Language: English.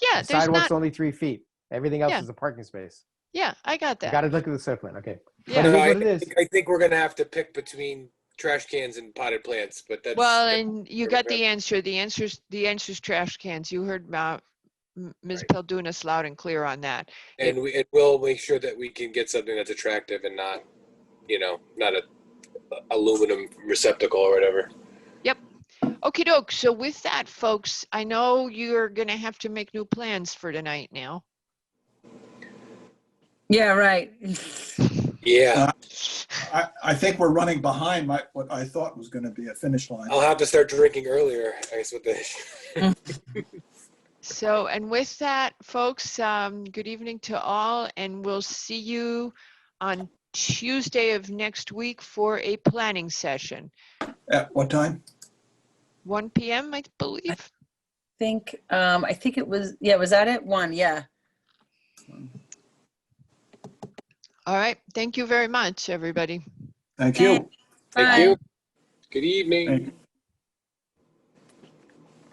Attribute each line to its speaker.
Speaker 1: yeah,
Speaker 2: The
Speaker 1: there's
Speaker 2: sidewalk's
Speaker 1: not.
Speaker 2: only three feet. Everything else
Speaker 1: Yeah.
Speaker 2: is a parking space.
Speaker 1: Yeah, I got
Speaker 2: You
Speaker 1: that.
Speaker 2: gotta look at the site plan, okay. But
Speaker 1: Yeah.
Speaker 2: it is
Speaker 3: No, I
Speaker 2: what it is.
Speaker 3: think- I think we're gonna have to pick between trash cans and potted plants, but that's.
Speaker 1: Well, and you
Speaker 3: very
Speaker 1: got
Speaker 3: good.
Speaker 1: the answer. The answer's, the answer's trash cans. You heard Ma- M- Ms. Peldunas loud and clear on that.
Speaker 3: And we, and we'll make sure that we can get something that's attractive and not, you know, not a aluminum receptacle or whatever.
Speaker 1: Okey doke. So with that, folks, I know you're gonna have to make new plans for tonight now.
Speaker 4: Yeah, right.
Speaker 2: Uh,
Speaker 3: Yeah,
Speaker 5: I, I think we're running behind my, what I thought was going to be a finish line.
Speaker 3: I'll have to start drinking earlier, I guess, with the.
Speaker 1: So, and with that, folks, um, good evening to all, and we'll see you on Tuesday of next week for a planning session.
Speaker 5: At what time?
Speaker 1: One PM, I believe.
Speaker 4: Think, um, I think it was, yeah, was that it? One, yeah.
Speaker 1: All right. Thank you very much, everybody.
Speaker 5: Thank you.
Speaker 3: Thank
Speaker 4: Bye.
Speaker 3: you. Good evening.
Speaker 5: Thank-